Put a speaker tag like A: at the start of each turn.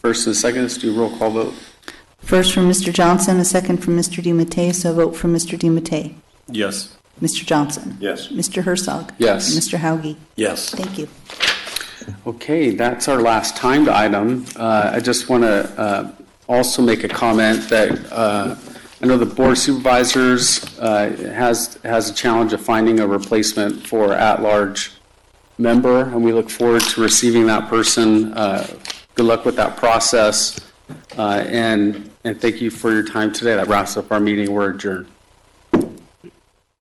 A: First and second, let's do a roll call vote.
B: First from Mr. Johnson, a second from Mr. DiMattei, so a vote for Mr. DiMattei.
C: Yes.
B: Mr. Johnson.
C: Yes.
B: Mr. Herzog.
A: Yes.
B: Mr. Hauge.
C: Yes.
B: Thank you.
A: Okay, that's our last timed item. Uh, I just want to also make a comment that uh, I know the Board of Supervisors uh, has, has a challenge of finding a replacement for at-large member, and we look forward to receiving that person. Uh, Good luck with that process, Uh, and, and thank you for your time today. That wraps up our meeting. We're adjourned.